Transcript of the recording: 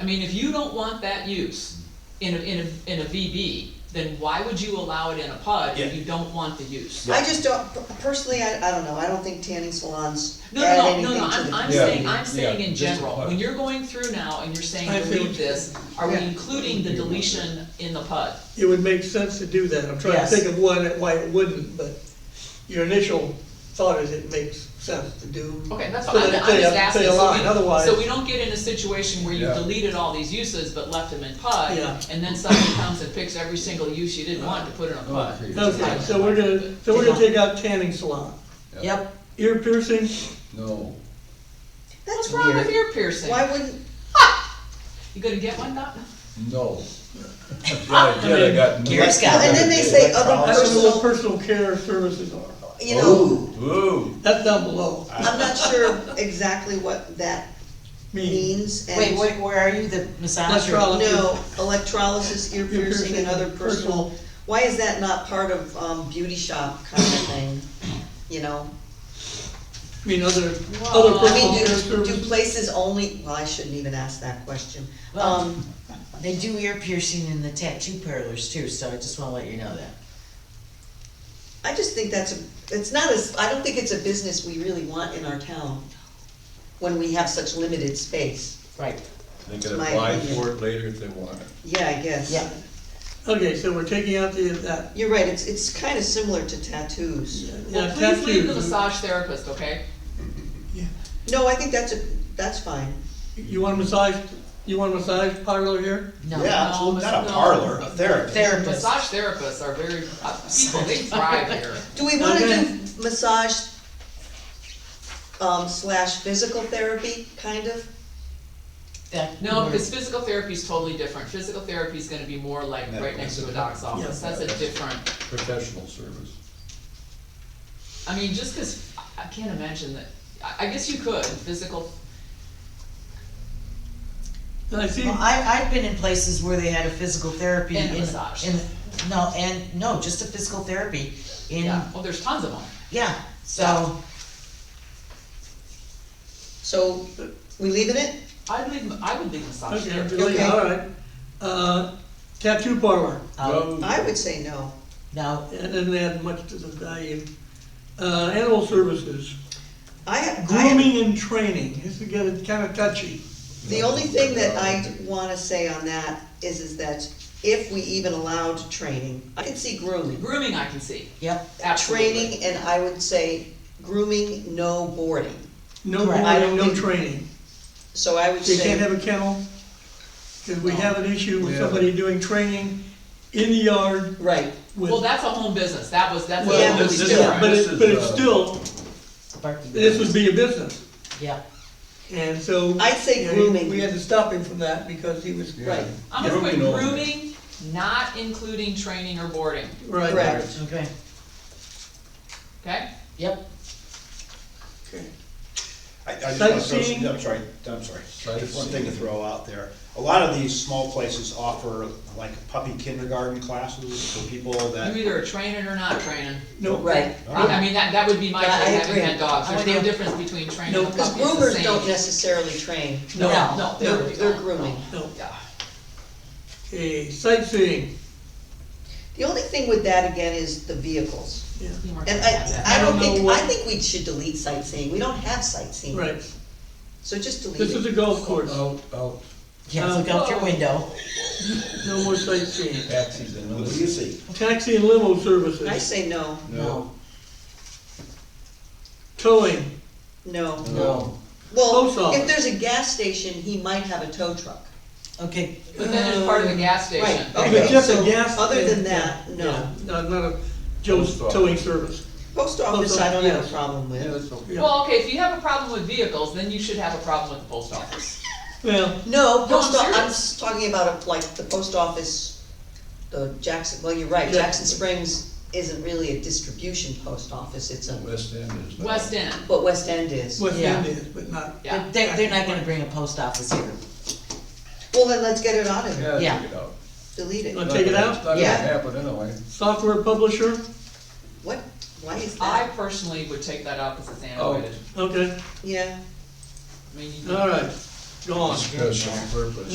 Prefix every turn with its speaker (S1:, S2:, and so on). S1: I mean, if you don't want that use in a, in a, in a VB, then why would you allow it in a PUD
S2: Yeah.
S1: if you don't want the use?
S2: Yeah.
S3: I just don't, personally, I, I don't know, I don't think tanning salons
S1: No,
S3: add
S1: no, no, no,
S3: anything to the.
S1: no, I'm, I'm
S2: Yeah,
S1: saying, I'm saying
S2: yeah,
S1: in
S2: just a
S1: general,
S2: PUD.
S1: when you're going through now and you're saying
S4: I feel
S1: delete
S4: what
S1: this, are we
S3: Yeah.
S1: including the deletion in the PUD?
S4: It would make sense to do that. I'm trying to
S3: Yes.
S4: think of one, that why it wouldn't, but your initial thought is it makes sense to do.
S1: Okay, that's
S4: so
S1: fine, I'm
S4: that it
S1: I'm
S4: stay-
S1: just asking,
S4: stay
S1: so
S4: aligned.
S1: we,
S4: Otherwise,
S1: so we don't get in a situation where you
S2: Yeah.
S1: deleted all these uses but left them in PUD,
S4: Yeah.
S1: and then somebody comes and picks every single use you didn't want to put in a PUD.
S4: okay, so we're gonna, so we're gonna take out tanning salon.
S3: Yep,
S4: Ear piercing,
S5: No.
S3: that's
S1: What's wrong with
S3: weird,
S1: ear piercing?
S3: why wouldn't,
S1: You gonna get one, Doc?
S5: No. Yeah, yeah, they got.
S6: Gear Scout.
S3: and then they say other
S4: I don't know what
S3: personal,
S4: personal care services are.
S3: you know,
S5: Ooh.
S4: That's down below,
S3: I'm not sure exactly what that
S4: mean.
S3: means, and.
S6: Wait, where, where are you, the massage
S4: That's
S6: or
S4: right.
S3: No, electrolysis, ear
S4: Ear
S3: piercing, and
S4: piercing,
S3: other
S4: personal.
S3: personal, why is that not part of, um, beauty shop kind of thing, you know?
S4: I mean, other, other
S1: Well,
S3: I mean,
S4: personal care
S3: do, do
S4: services.
S3: places only, well, I shouldn't even ask that question.
S1: Well-
S3: Um,
S6: They do ear piercing in the tattoo parlors too, so I just wanna let you know that.
S3: I just think that's, a it's not as, I don't think it's a business we really want in our town when we have such limited space.
S6: Right.
S5: They could
S3: My
S5: apply
S3: opinion.
S5: for it later if they want it.
S3: Yeah, I guess.
S6: Yeah.
S4: Okay, so we're taking out the, that,
S3: You're right, it's, it's kind of similar to tattoos.
S4: yeah,
S1: Well, please leave the
S4: tattoos.
S1: massage therapist, okay?
S3: No, I think that's a, that's fine.
S4: You want a massage, you want a massage parlor here?
S6: No.
S2: Yeah, absolutely, not a parlor, a therapist.
S6: Therapist.
S1: Massage therapists are very, uh, people, they thrive here.
S3: Do we wanna
S4: Okay.
S3: do massage um, slash physical therapy, kind of?
S6: That-
S1: No, because physical therapy is totally different. Physical therapy is gonna be more like right
S2: Medical.
S1: next to a doc's office.
S4: Yeah.
S1: That's a different,
S5: Professional service.
S1: I mean, just because, I can't imagine that, I, I guess you could, physical,
S4: And I see,
S6: Well, I, I've been in places where they had a physical therapy.
S1: And a
S6: in-
S1: massage.
S6: in- no, and, no, just a physical therapy in,
S1: yeah, well, there's tons of them.
S6: yeah, so,
S3: So, we leaving it?
S1: I'd leave, I would leave massage
S4: okay,
S1: therapy.
S4: delete,
S3: Okay.
S4: all right. Uh, tattoo parlor,
S6: um,
S3: Oh, I would say no.
S6: no,
S4: that doesn't add much to the value. Uh, animal services,
S3: I have, I have-
S4: grooming and training, this is getting kinda touchy.
S3: the only thing that I wanna say on that is, is that if we even allowed training, I can see grooming.
S1: Grooming I can see,
S6: yep,
S1: absolutely.
S3: Training, and I would say grooming, no boarding.
S4: No
S6: Correct.
S3: I don't
S4: grooming, no
S3: think-
S4: training.
S3: So I would
S4: They can't
S3: say,
S4: have a kennel, cause we
S6: No.
S4: have an issue with
S5: Yeah.
S4: somebody doing training in the yard
S3: right,
S4: with.
S1: Well, that's a home business, that was, that's a
S3: Well,
S1: totally
S5: this is-
S4: Yeah,
S1: different.
S4: but
S5: This
S4: it,
S5: is,
S4: but it's
S5: uh,
S4: still,
S6: Barking.
S4: this would be a business,
S6: yeah.
S4: and so.
S3: I'd say
S4: you know,
S3: grooming.
S4: We had to stop him from that because he was.
S3: right,
S1: I'm gonna put
S5: Grooming only.
S1: grooming, not including training or boarding,
S4: Right.
S3: correct.
S6: Okay,
S1: okay?
S6: yep,
S2: I, I just wanna throw
S4: Sightseeing.
S2: some, I'm sorry, I'm sorry, just one thing
S5: Sightseeing.
S2: to throw out there. A lot of these small places offer like puppy kindergarten classes for people
S1: You
S2: that,
S1: either are training or not training.
S4: No.
S3: Right.
S1: I, I mean, that, that would be my
S3: Yeah, I
S1: take, having
S3: agree.
S1: had dogs,
S6: I'm
S1: there's
S6: with
S1: no
S6: you.
S1: difference between training
S4: No,
S1: and
S3: Cause
S1: puppy, it's the
S3: groomers
S1: same.
S3: don't necessarily train,
S4: No,
S6: No.
S1: No,
S3: they're,
S1: they're,
S3: they're grooming.
S4: no.
S1: yeah.
S4: Okay, sightseeing,
S3: The only thing with that again is the vehicles.
S4: yeah,
S1: You weren't
S3: And
S1: gonna have
S3: I,
S1: that.
S3: I don't
S4: I don't know
S3: think, I
S4: what-
S3: think we should delete sightseeing, we don't have sightseeing.
S4: right.
S3: So just delete it.
S4: This is a golf course,
S5: Out, out,
S6: yeah, look out your window,
S4: no more sightseeing.
S5: taxis and
S2: what
S5: others.
S2: do you see?
S4: Taxi and limo
S3: I
S4: services,
S3: say no,
S6: no,
S4: towing,
S3: no.
S6: no,
S4: Post
S3: Well,
S4: office.
S3: if there's a gas station, he might have a tow truck.
S6: okay,
S1: But then it's part of the gas station.
S3: Right, Oh,
S4: If it's
S3: okay,
S4: just a
S3: so,
S4: gas
S3: other than
S4: station,
S3: that, no.
S4: yeah, No, not a Joe's
S5: Post office.
S4: towing service.
S3: Post office, I don't have a
S4: yes.
S3: problem
S5: Yeah,
S3: with.
S5: that's okay.
S4: Yeah.
S1: Well, okay, if you have a problem with vehicles, then you should have a problem with the post office.
S4: Well,
S3: No,
S1: I'm
S3: post, o- I'm
S1: serious.
S3: s- talking about a- like the post office, the Jackson, well, you're right,
S4: Yeah.
S3: Jackson Springs isn't really a distribution post office, it's a,
S5: West End is. not-
S1: West End,
S3: what West End is.
S4: West
S6: Yeah.
S4: End is, but not,
S1: yeah.
S6: they, they're not gonna bring a post office here,
S3: Well, then let's get it out of there,
S5: Yeah,
S6: Yeah.
S5: take it out.
S3: delete
S4: Let's-
S3: it.
S4: Take it out?
S5: It's not gonna
S3: Yeah.
S5: happen anyway.
S4: software publisher,
S3: What, why is
S1: I
S3: that?
S1: personally would take that out because it's antiquated.
S4: okay,
S3: Yeah.
S1: I mean, you-
S4: all right, go on.
S5: Special purpose.